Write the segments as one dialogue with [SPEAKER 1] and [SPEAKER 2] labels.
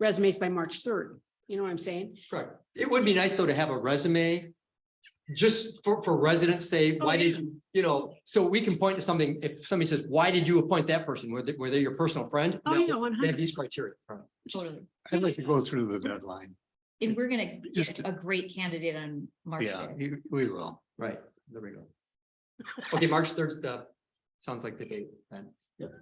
[SPEAKER 1] resumes by March third. You know what I'm saying?
[SPEAKER 2] Correct. It would be nice though to have a resume. Just for, for residents say,
[SPEAKER 1] Oh,
[SPEAKER 2] why
[SPEAKER 1] yeah.
[SPEAKER 2] did, you you know, so we can point to something, if somebody says, why did you appoint that person? Were they, were they your personal friend?
[SPEAKER 1] Oh,
[SPEAKER 2] No,
[SPEAKER 1] yeah, one
[SPEAKER 2] They have
[SPEAKER 1] hundred.
[SPEAKER 2] these criteria.
[SPEAKER 3] Totally.
[SPEAKER 4] I'd like to go through the deadline.
[SPEAKER 3] And we're gonna
[SPEAKER 4] Just
[SPEAKER 3] get
[SPEAKER 4] to-
[SPEAKER 3] a great candidate on March
[SPEAKER 4] Yeah,
[SPEAKER 3] fifth.
[SPEAKER 4] you- we will.
[SPEAKER 2] Right, there we go. Okay, March third stuff. Sounds like the date then.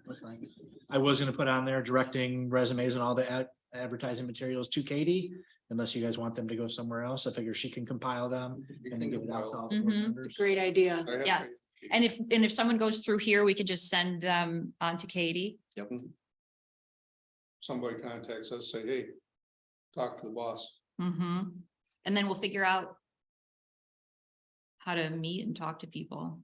[SPEAKER 5] That's fine. I was gonna put on there directing resumes and all the ad- advertising materials to Katie, unless you guys want them to go somewhere else. I figure she can compile them and then give it out to all the board
[SPEAKER 3] Mhm.
[SPEAKER 5] members.
[SPEAKER 1] Great idea.
[SPEAKER 3] Yes. And if, and if someone goes through here, we could just send them on to Katie.
[SPEAKER 4] Mm-hmm.
[SPEAKER 6] somebody contacts us, say, hey, talk to the boss.
[SPEAKER 3] hmm And then we'll figure out how to meet and talk to people.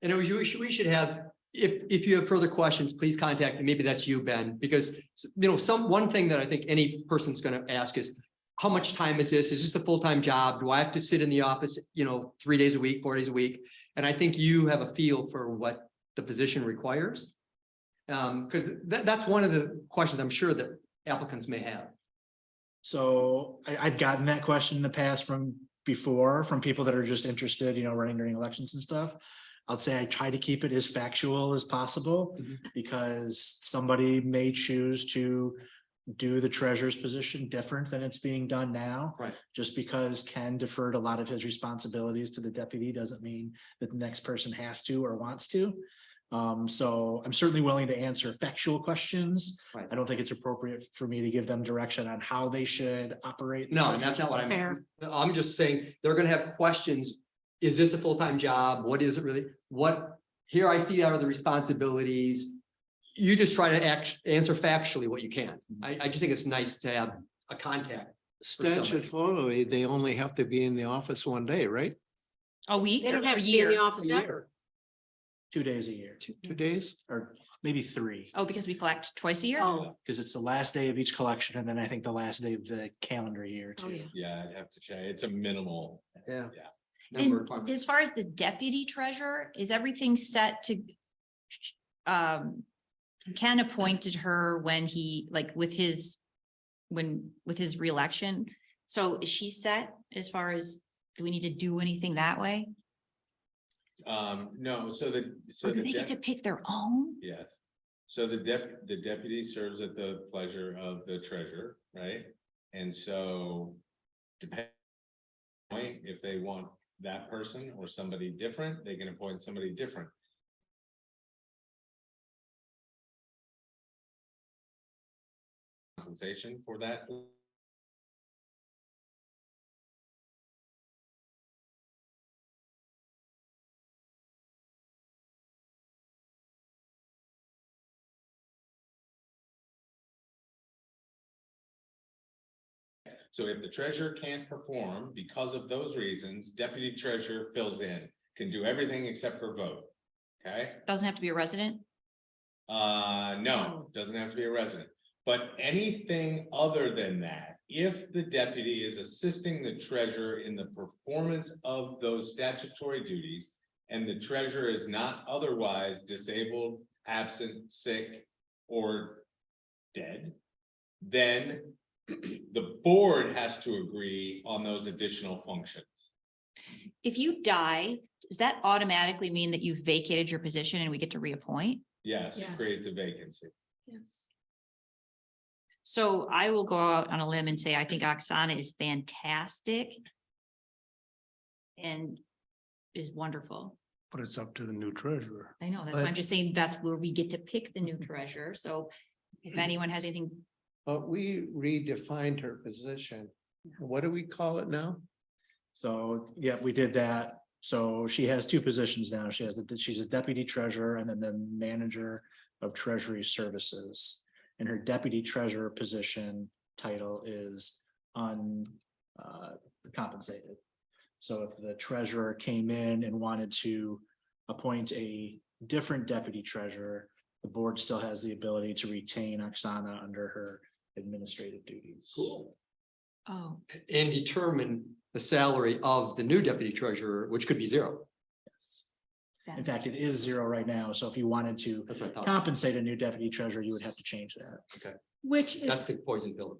[SPEAKER 2] And we should, we should have, if, if you have further questions, please contact, me. maybe that's you, Ben, because, you know, some, one thing that I think any person's gonna ask is, how much time is this? Is this a full-time job? Do I have to sit in the office, you know, three days a week, four days a week? And I think you have a feel for what the position requires. Um, because that, that's one of the questions I'm sure that applicants may have.
[SPEAKER 5] So I, I've gotten that question in the past from before, from people that are just interested, you know, running during elections and stuff. I'll say I try to keep it as factual as possible
[SPEAKER 2] Mhm.
[SPEAKER 5] because somebody may choose to do the treasurer's position different than it's being done now.
[SPEAKER 2] Right.
[SPEAKER 5] Just because Ken deferred a lot of his responsibilities to the deputy doesn't mean that the next person has to or wants to. Um, so I'm certainly willing to answer factual questions.
[SPEAKER 2] Right.
[SPEAKER 5] I don't think it's appropriate for me to give them direction on how they should operate. the
[SPEAKER 2] No,
[SPEAKER 5] treasurer's
[SPEAKER 2] that's not what I'm,
[SPEAKER 1] Fair.
[SPEAKER 2] I'm just saying, they're gonna have questions. Is this a full-time job? What is it really? What, here I see out of the responsibilities. You just try to act, answer factually what you can. I, I just think it's nice to have a contact. somebody.
[SPEAKER 4] Statutorily, they only have to be in the office one day, right?
[SPEAKER 3] A week
[SPEAKER 1] They
[SPEAKER 3] or
[SPEAKER 1] don't have
[SPEAKER 3] a
[SPEAKER 1] to be in the
[SPEAKER 3] year?
[SPEAKER 1] office ever.
[SPEAKER 5] Two days a year,
[SPEAKER 4] Two two days?
[SPEAKER 5] or maybe three,
[SPEAKER 3] Oh, because we collect twice a year?
[SPEAKER 1] Oh,
[SPEAKER 5] because it's the last day of each collection, and then I think the last day of the calendar year
[SPEAKER 1] oh, yeah.
[SPEAKER 5] too.
[SPEAKER 7] Yeah, I'd have to check. It's a minimal.
[SPEAKER 2] Yeah.
[SPEAKER 7] Yeah.
[SPEAKER 2] Number of
[SPEAKER 3] And
[SPEAKER 2] requirements.
[SPEAKER 3] as far as the deputy treasurer, is everything set to? Um, Ken appointed her when he, like with his, when, with his reelection. So is she set as far as, do we need to do anything that way?
[SPEAKER 7] Um, no, so the, so
[SPEAKER 3] Or do they
[SPEAKER 7] the,
[SPEAKER 3] get to
[SPEAKER 7] dep-
[SPEAKER 3] pick their own?
[SPEAKER 7] yes. So the dep- the deputy serves at the pleasure of the treasurer, right? And so depend if they want that person or somebody different, they can appoint somebody different. Compensation for that. So if the treasurer can't perform because of those reasons, deputy treasurer fills in, can do everything except for vote. Okay?
[SPEAKER 3] Doesn't have to be a resident?
[SPEAKER 7] Uh, no,
[SPEAKER 3] No.
[SPEAKER 7] doesn't have to be a resident, but anything other than that, if the deputy is assisting the treasurer in the performance of those statutory duties. And the treasurer is not otherwise disabled, absent, sick, or dead. Then the board has to agree on those additional functions.
[SPEAKER 3] If you die, does that automatically mean that you've vacated your position and we get to reappoint?
[SPEAKER 7] Yes,
[SPEAKER 1] Yes.
[SPEAKER 7] creates a vacancy.
[SPEAKER 3] So I will go out on a limb and say, I think Oksana is fantastic. And is wonderful.
[SPEAKER 4] But it's up to the new treasurer.
[SPEAKER 3] I know, that's why I'm just saying that's where we get to pick the new treasurer. So if anyone has anything,
[SPEAKER 8] But we redefined her position. What do we call it now?
[SPEAKER 5] So, yeah, we did that. So she has two positions now. She has, a she's a deputy treasurer and then the manager of treasury services. And her deputy treasurer position title is uncompensated. So if the treasurer came in and wanted to appoint a different deputy treasurer, the board still has the ability to retain Oksana under her administrative duties.
[SPEAKER 2] Cool.
[SPEAKER 3] oh,
[SPEAKER 2] And determine the salary of the new deputy treasurer, which could be zero.
[SPEAKER 3] that-
[SPEAKER 5] In fact, it is zero right now. So if you wanted to
[SPEAKER 2] That's what I thought.
[SPEAKER 5] compensate a new deputy treasurer, you would have to change that.
[SPEAKER 1] Which is
[SPEAKER 2] That's the poison pill.